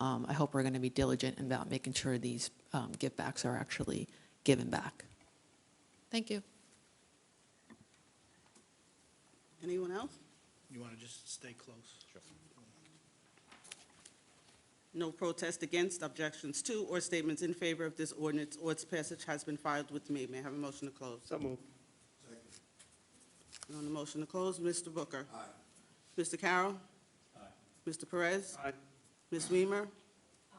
um, I hope we're going to be diligent about making sure these um, givebacks are actually given back. Thank you. Anyone else? You want to just stay close? No protest against, objections to, or statements in favor of this ordinance or its passage has been filed with me. May I have a motion to close? So moved. And on the motion to close, Mr. Booker? Aye. Mr. Carroll? Aye. Mr. Perez? Aye. Ms. Weimer? Aye.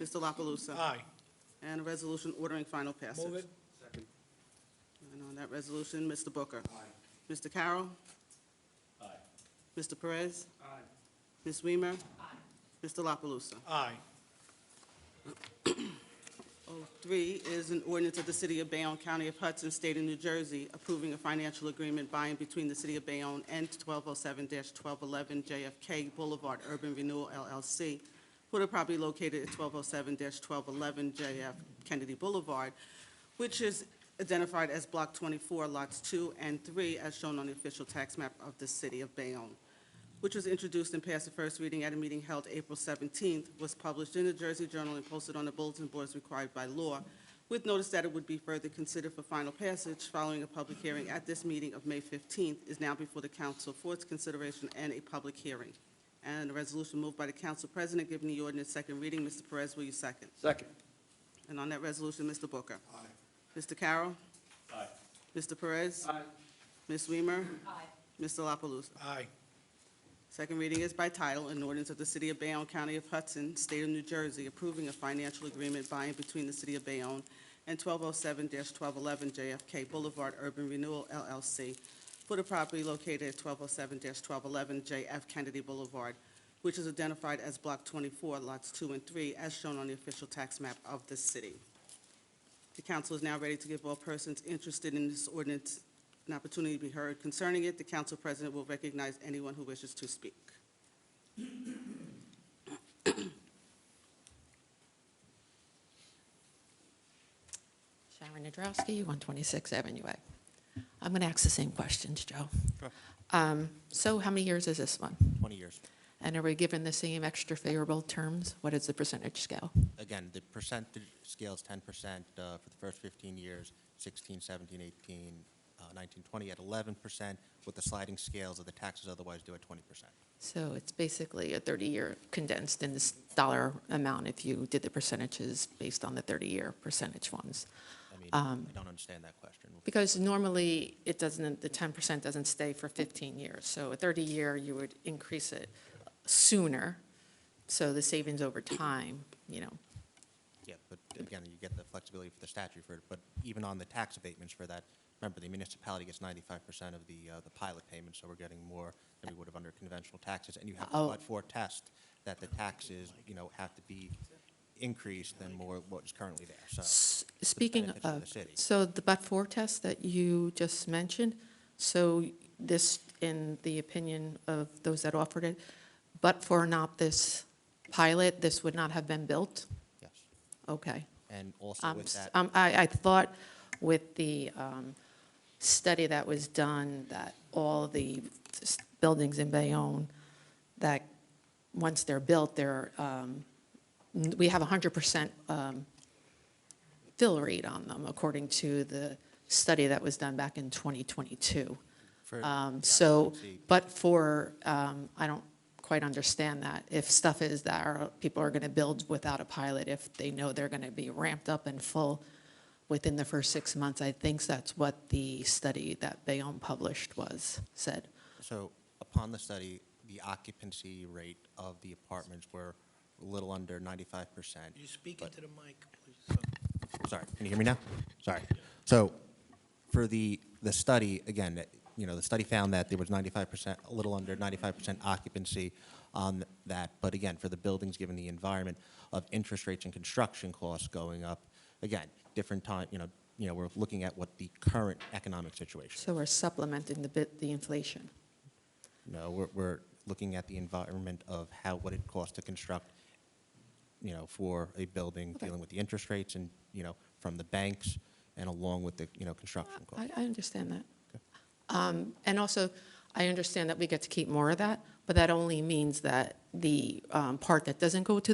Mr. La Palusa? Aye. And a resolution ordering final passage. Move it. Second. And on that resolution, Mr. Booker? Aye. Mr. Carroll? Aye. Mr. Perez? Aye. Ms. Weimer? Aye. Mr. La Palusa? Aye. Three is an ordinance of the City of Bayonne, County of Hudson, State of New Jersey, approving a financial agreement by and between the City of Bayonne and 1207-1211 JFK Boulevard Urban Renewal LLC for the property located at 1207-1211 JF Kennedy Boulevard, which is identified as Block 24, Lots 2 and 3, as shown on the official tax map of the City of Bayonne which was introduced and passed the first reading at a meeting held April 17th, was published in the Jersey Journal and posted on the bulletin boards required by law, with notice that it would be further considered for final passage following a public hearing at this meeting of May 15th, is now before the council for its consideration and a public hearing. And a resolution moved by the council president giving the ordinance second reading. Mr. Perez, will you second? Second. And on that resolution, Mr. Booker. Aye. Mr. Carroll. Aye. Mr. Perez. Aye. Ms. Weimer. Aye. Mr. La Palusa? Aye. Second reading is by title, an ordinance of the City of Bayonne, County of Hudson, State of New Jersey, approving a financial agreement by and between the City of Bayonne and 1207-1211 JFK Boulevard Urban Renewal LLC for the property located at 1207-1211 JF Kennedy Boulevard, which is identified as Block 24, Lots 2 and 3, as shown on the official tax map of the city. The council is now ready to give all persons interested in this ordinance an opportunity to be heard concerning it. The council president will recognize anyone who wishes to speak. Sharon Nadrowski, 126 Avenue A. I'm going to ask the same questions, Joe. Um, So how many years is this one? 20 years. And are we given the same extra favorable terms? What is the percentage scale? Again, the percentage scale is 10% uh, for the first 15 years, 16, 17, 18, uh, 19, 20 at 11%, with the sliding scales of the taxes otherwise due at 20%. So it's basically a 30-year condensed in this dollar amount if you did the percentages based on the 30-year percentage ones. I mean, I don't understand that question. Um, Because normally, it doesn't, the 10% doesn't stay for 15 years. So a 30-year, you would increase it sooner, so the savings over time, you know. Yeah, but again, you get the flexibility for the statute for it, but even on the tax abatements for that, remember, the municipality gets 95% of the, uh, the pilot payment, so we're getting more than we would have under conventional taxes, and you have Oh. a but-for test that the taxes, you know, have to be increased than more what is currently there, so. S- Speaking benefits of of, the city. so the but-for test that you just mentioned, so this, in the opinion of those that offered it, but for not this pilot, this would not have been built? Yes. Okay. And also Um, with s- that, um, I, I thought with the um, study that was done, that all the s- buildings in Bayonne, that once they're built, they're, um, n- we have 100% um, fill rate on them, according to the study that was done back in 2022. for Um, the So, occupancy, but for, um, I don't quite understand that. If stuff is that are- people are going to build without a pilot, if they know they're going to be ramped up and full within the first six months, I think that's what the study that Bayonne published was, said. So upon the study, the occupancy rate of the apartments were a little under 95%. You speak into the mic, please. Sorry, can you hear me now? Sorry. So for the, the study, again, that- you know, the study found that there was 95%, a little under 95% occupancy on that. But again, for the buildings, given the environment of interest rates and construction costs going up, again, different time, you know, you know, we're looking at what the current economic situation is. So we're supplementing the bit, the inflation. No, we're, we're looking at the environment of how, what it costs to construct, you know, for a building, dealing with the interest rates and, you know, from the banks and along with the, you know, construction costs. I, I understand that. Um, And also, I understand that we get to keep more of that, but that only means that the um, part that doesn't go to